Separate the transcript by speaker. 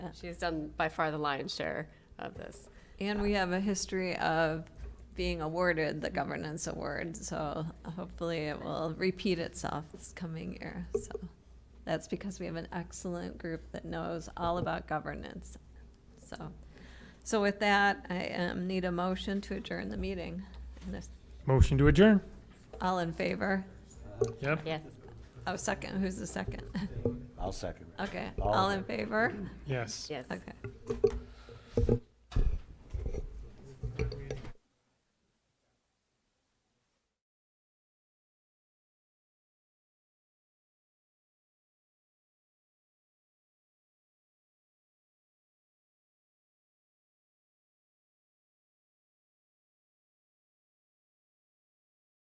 Speaker 1: She's done by far the lion's share of this.
Speaker 2: And we have a history of being awarded the governance award, so hopefully it will repeat itself this coming year. So that's because we have an excellent group that knows all about governance. So, so with that, I um, need a motion to adjourn the meeting. And if
Speaker 3: Motion to adjourn.
Speaker 2: all in favor?
Speaker 3: Yep.
Speaker 1: Yes.
Speaker 2: Oh, second, who's the second?
Speaker 4: I'll second.
Speaker 2: Okay,
Speaker 4: All
Speaker 2: all
Speaker 4: in.
Speaker 2: in favor?
Speaker 3: Yes.
Speaker 1: Yes.
Speaker 2: Okay.